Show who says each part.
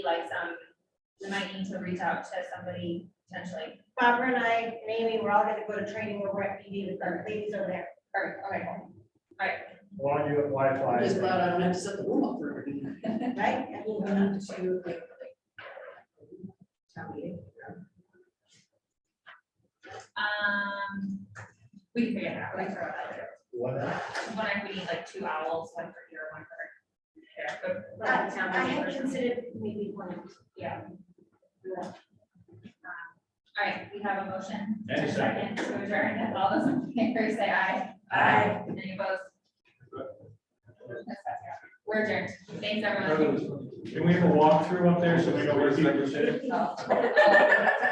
Speaker 1: like some, we might need to reach out to somebody potentially.
Speaker 2: Barbara and I and Amy, we're all gonna go to training where we're at PD with our ladies over there.
Speaker 1: All right, all right, all right.
Speaker 3: Why don't you apply
Speaker 4: I'm just
Speaker 3: fly?
Speaker 4: glad I don't have to set the room up for everything.
Speaker 2: Right?
Speaker 4: I don't have to do, like, town meeting.
Speaker 1: Um, we can figure it out, like, throw it out there.
Speaker 3: What?
Speaker 1: One, if we need like two owls, one for here, one for there. but-
Speaker 2: I I had considered maybe one.
Speaker 1: Yeah. Um, All right, we have a motion.
Speaker 3: And a second.
Speaker 1: To adjourn, if all those in favor say aye.
Speaker 3: Aye.
Speaker 1: Any opposed? We're adjourned. Thanks, everyone.
Speaker 3: Can we have a walkthrough up there so we know where people sit?
Speaker 1: Oh.